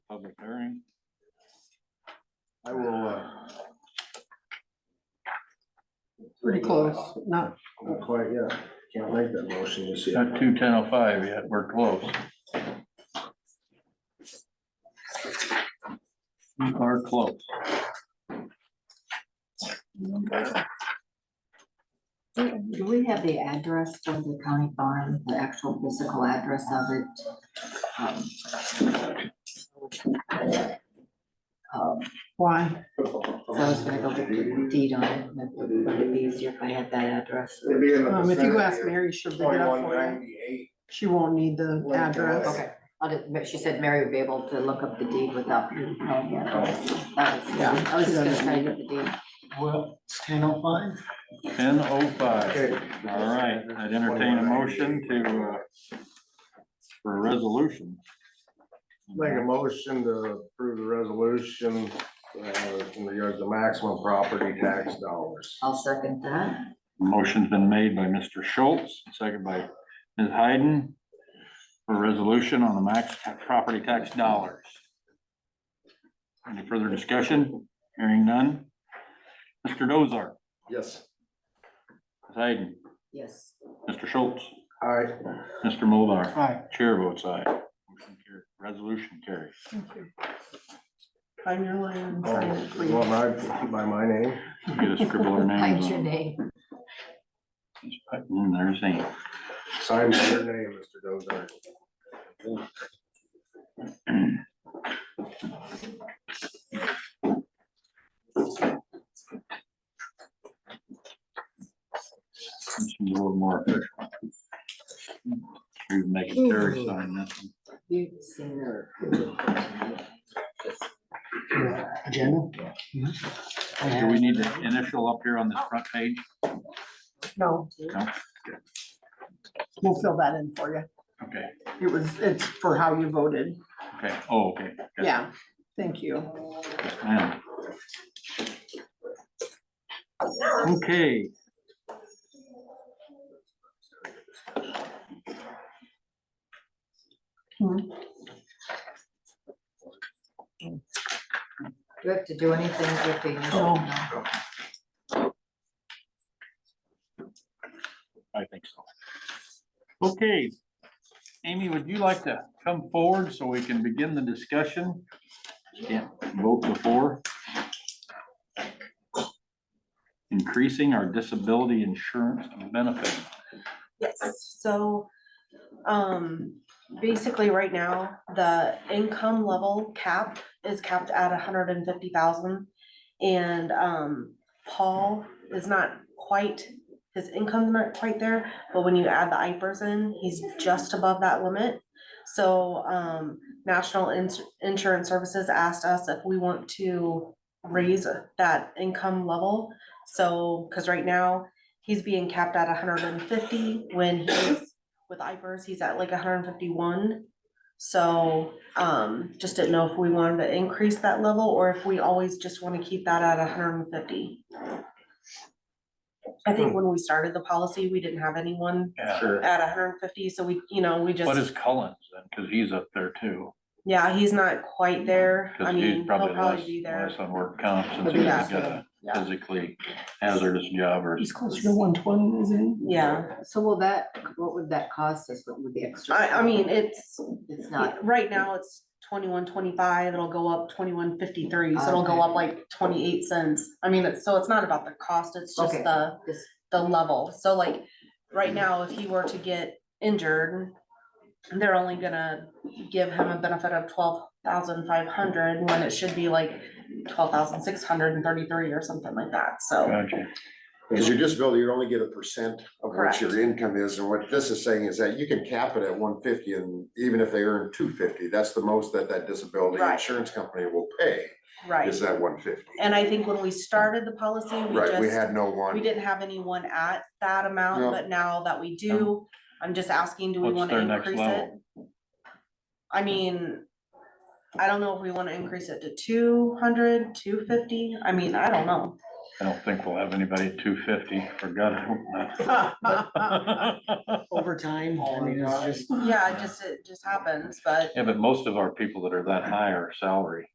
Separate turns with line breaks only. public hearing.
I will, uh,
Pretty close, not,
not quite yet, can't make that motion just yet.
Not two ten oh five yet, we're close. We are close.
Do do we have the address for the county farm, the actual physical address of it? Um, um,
why?
So I was gonna go get the deed on it, but it would be easier if I had that address.
It'd be in the
Um, if you go ask
vicinity
Mary, she'll
of
dig it up
2198.
for you. She won't need the
Like, uh,
address.
Okay, I'll just- but she said Mary would be able to look up the deed without you knowing the address. That was-
Yeah,
I was
she
just gonna
doesn't
try to
need
get the deed.
Well, it's ten oh five.
Ten oh five.
Okay.
All right, I'd entertain a motion to, uh, for a resolution.
Make a motion to approve the resolution, uh, in regards to maximum property tax dollars.
I'll second that.
Motion's been made by Mr. Schultz, second by Ms. Hayden. For a resolution on the max property tax dollars. Any further discussion? Hearing none. Mr. Dozar,
Yes.
Ms. Hayden,
Yes.
Mr. Schultz,
All right,
Mr. Mulbar,
Hi,
chair votes aye. Motion carried. Resolution carries.
Thank you. Find your line, sign
oh,
it,
you want
please.
my, by my name?
Get a scribble our
Find
names
your
on. it.
name.
Mm, There's name.
Sign by your name, Mr. Dozart.
This one's A little more official. We can make a Terry sign this one.
You've seen her.
agenda? I
Do
have-
we need the initial up here on this front page?
No.
No.
We'll fill that in for you.
Okay,
It was, it's for how you voted.
okay, oh, okay. good.
Yeah, thank you.
Yes, ma'am. Okay.
Do we have to do anything with the
Oh.
initial?
No.
I think so. Okay, Amy, would you like to come forward so we can begin the discussion? Can't vote before. Increasing our disability insurance benefit.
Yes, so, um, basically right now, the income level cap is capped at hundred and fifty thousand. And, um, Paul is not quite, his income's not quite there, but when you add the IPers in, he's just above that limit. So, um, National Ins- Insurance Services asked us if we want to raise that income level. So, cause right now, he's being capped at hundred and fifty when he's with Ipers, he's at like hundred and fifty-one. So, um, just didn't know if we wanted to increase that level or if we always just wanna keep that at hundred and fifty. I think when we started the policy, we didn't have anyone
Sure.
at hundred and fifty, so we, you know, we just.
What is Cullen's then? Cause he's up there too.
Yeah, he's not quite there. I
Cause
mean,
he's
he'll
probably less,
probably be there.
less on work comp since
But
he's
yeah.
got a
Yeah.
physically hazardous job or.
He's closer to one twenty, isn't he?
Yeah,
So will that, what would that cost us, what would the extra?
I, I mean, it's,
It's not,
right now it's twenty-one, twenty-five, it'll go up twenty-one, fifty-three, so it'll go
Okay.
up like twenty-eight cents. I mean, it's, so it's not about the cost, it's just
Okay.
the,
this,
the level. So like, right now, if he were to get injured, they're only gonna give him a benefit of twelve thousand five hundred, when it should be like twelve thousand six hundred and thirty-three or something like that, so.
Gotcha.
Because your disability, you only get a percent of what
Correct.
your income is, and what this is saying is that you can cap it at one fifty, and even if they earn two fifty, that's the most that that disability
Right.
insurance company will pay,
Right.
is that one fifty.
And I think when we started the policy, we
Right, we
just,
had no
we
one,
didn't have anyone at that
No.
amount, but now that we do, I'm just asking, do we
What's
wanna
their next
increase it?
level?
I mean, I don't know if we wanna increase it to 200, 250. I mean, I don't know.
I don't think we'll have anybody at two fifty, for God. I hope not.
Overtime, I mean,
Oh
it's just.
Yeah, it just, it just happens, but
Yeah, but most of our people that are that high are salary.